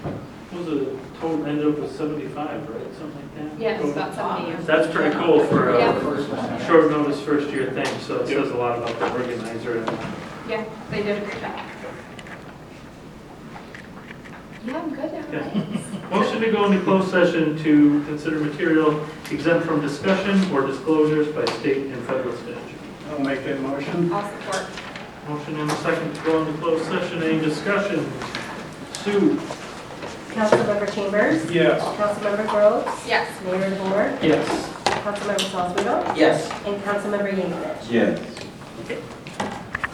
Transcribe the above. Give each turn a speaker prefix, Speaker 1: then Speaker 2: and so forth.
Speaker 1: supposed to total ended up with 75, right, something like that?
Speaker 2: Yes,
Speaker 1: Total.
Speaker 2: about 70 years.
Speaker 1: That's pretty cool for
Speaker 2: Yeah.
Speaker 1: a
Speaker 3: First one.
Speaker 1: short notice first year thing, so it says a lot about the organizer and
Speaker 2: Yeah, they did a good job. Yeah, I'm good now. thanks.
Speaker 1: Motion to go into closed session to consider material exempt from discussion or disclosures by state and federal statute.
Speaker 3: I'll make that motion.
Speaker 2: I'll support.
Speaker 1: Motion and a second to go into closed session, any discussion? Sue?
Speaker 4: Councilmember Chambers,
Speaker 3: Yes.
Speaker 4: Councilmember Groves,
Speaker 2: Yes.
Speaker 4: Mayor DeBoer,
Speaker 1: Yes.
Speaker 4: Councilmember Salzweedl,
Speaker 3: Yes.
Speaker 4: and Councilmember Yankovic.
Speaker 5: Yes.